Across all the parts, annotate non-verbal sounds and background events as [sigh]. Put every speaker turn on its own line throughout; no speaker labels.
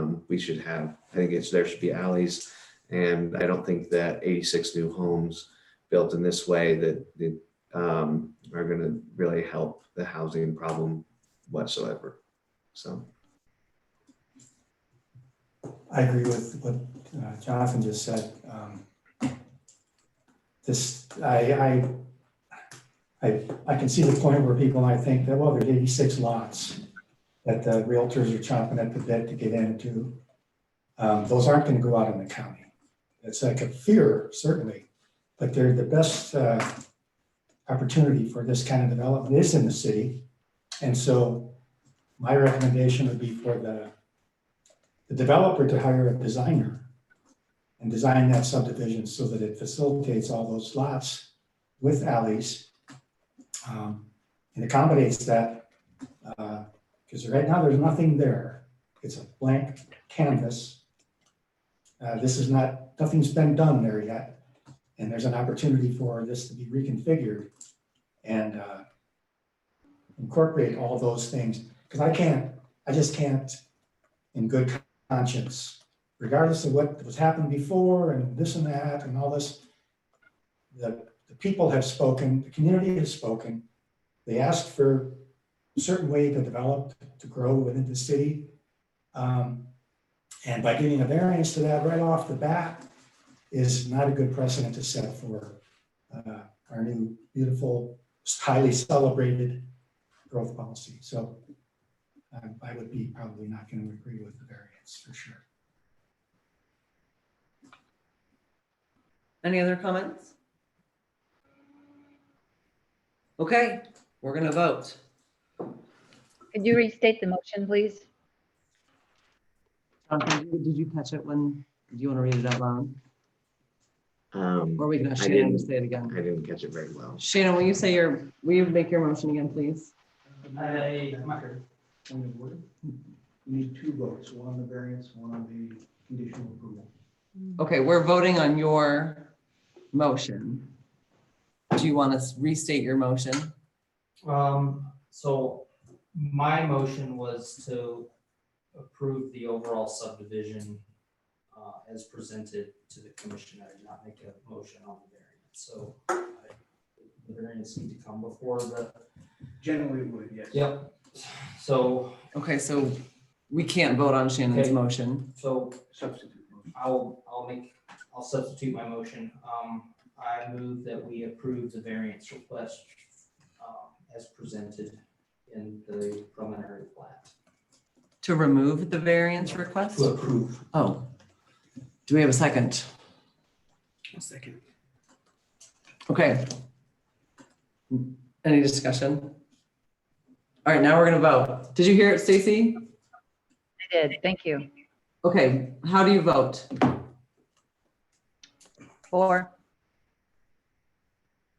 Um, should have. I think it's, there should be alleys. And I don't think that eighty-six new homes built in this way that, that, um, are gonna really help the housing problem whatsoever. So,
I agree with what uh, Jonathan just said. Um, This, I, I, I, I can see the point where people might think that, well, there's eighty-six lots that the realtors are chomping at the bit to get into. Um, Those aren't gonna go out in the county. It's like a fear, certainly, but they're the best uh, opportunity for this kind of development is in the city. And so my recommendation would be for the the developer to hire a designer and design that subdivision so that it facilitates all those lots with alleys. um, And accommodates that, because right now there's nothing there. It's a blank canvas. Uh, This is not, nothing's been done there yet. And there's an opportunity for this to be reconfigured and uh, incorporate all those things. Because I can't, I just can't, in good conscience, regardless of what was happened before and this and that and all this. The, the people have spoken, the community has spoken. They asked for a certain way to develop, to grow within the city. Um, And by giving a variance to that right off the bat is not a good precedent to set for uh, our new beautiful, highly celebrated growth policy. So um, I would be probably not going to agree with the variance for sure.
Any other comments? Okay, we're gonna vote.
Could you restate the motion, please?
Jonathan, Did did you catch it when, do you want to read it out loud? Or
um,
we can, ask
I
Shannon,
didn't.
to say it
I
again.
didn't catch it very well.
Shannon, will you say your, will you make your motion again, please?
I, point of order. You need two votes, one on the variance, one on the conditional approval.
Okay, we're voting on your motion. Do you want to restate your motion?
Um, so my motion was to approve the overall subdivision uh, as presented to the commission. I did not make a motion on the variance, so I- the variance need to come before the.
Generally would, yes.
Yep. So,
Okay, so we can't vote on Shannon's
Okay.
motion.
so
Substitute motion.
I'll, I'll make, I'll substitute my motion. Um, I move that we approve the variance request um, as presented in the preliminary plat.
To remove the variance request?
To approve.
Oh. Do we have a second?
second.
Okay. Any discussion? All right, now we're gonna vote. Did you hear it, Stacy?
I did, thank you.
Okay, how do you vote?
Four,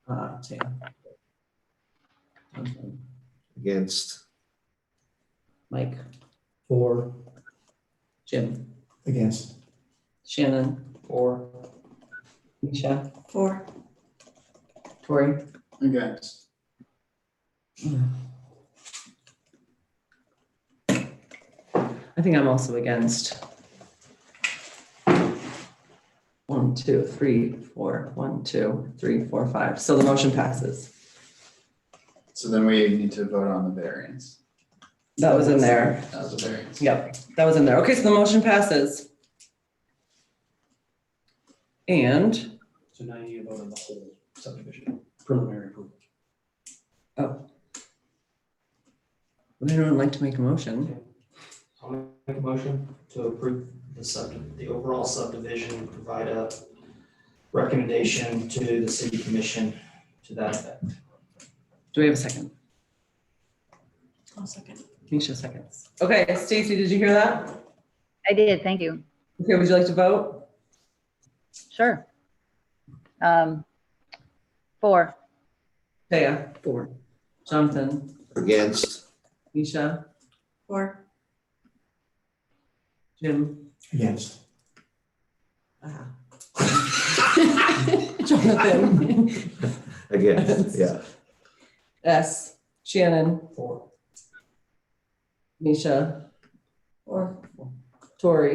Uh, Sam.
Against,
Mike,
For,
Jim,
against,
Shannon,
Or
Misha. Four. Tori.
Against.
I think I'm also against. One, two, three, four, one, two, three, four, five. So the motion passes.
So then we need to vote on the variance.
That was in there.
That was a variance.
Yep, that was in there. Okay, so the motion passes. And,
So now you need to vote on the whole subdivision, preliminary approval.
would anyone like to make a motion?
I'll make a motion to approve the sub, the overall subdivision, and provide a recommendation to the city commission to that effect.
Do we have a second?
I'll second.
Misha seconds. Okay, Stacy, did you hear that?
I did, thank you,
Okay, would you like to vote?
sure. Um, Four,
Taya? Four. Jonathan?
against,
Misha?
Four.
Jim?
against.
Ah. [laughs] Jonathan?
against, yeah,
S. Shannon?
Four.
Misha?
Four.
Tori?